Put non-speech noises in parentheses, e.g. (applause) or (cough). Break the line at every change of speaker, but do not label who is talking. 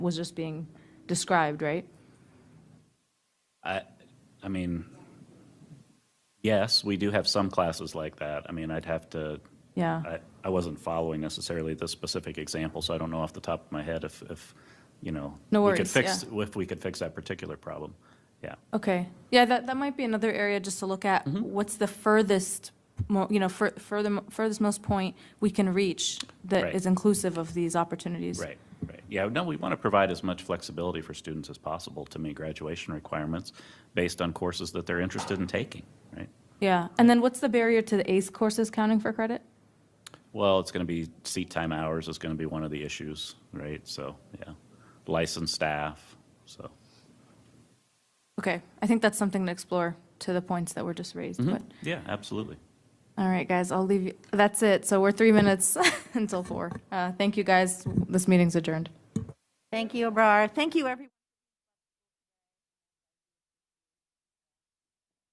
was just being described, right?
I, I mean, yes, we do have some classes like that. I mean, I'd have to,
Yeah,
I, I wasn't following necessarily the specific example, so I don't know off the top of my head if, if, you know.
No
we could
worries,
fix If we could fix that particular problem, yeah.
okay. Yeah, that, that might be another area just to look at.
Mm-hmm.
What's the furthest, mo- you know, fur- further, furthest most point we can reach that
Right.
is inclusive of these opportunities?
Right, right. Yeah, no, we want to provide as much flexibility for students as possible to meet graduation requirements based on courses that they're interested in taking, right?
Yeah, and then what's the barrier to the ACE courses counting for credit?
Well, it's going to be, seat time hours is going to be one of the issues, right? So, yeah, licensed staff, so.
Okay, I think that's something to explore to the points that were just raised, but,
Yeah, absolutely.
all right, guys, I'll leave you, that's it. So we're three minutes (laughs) until four. Uh, Thank you, guys, this meeting's adjourned.
Thank you, Abrar. Thank you, everyone.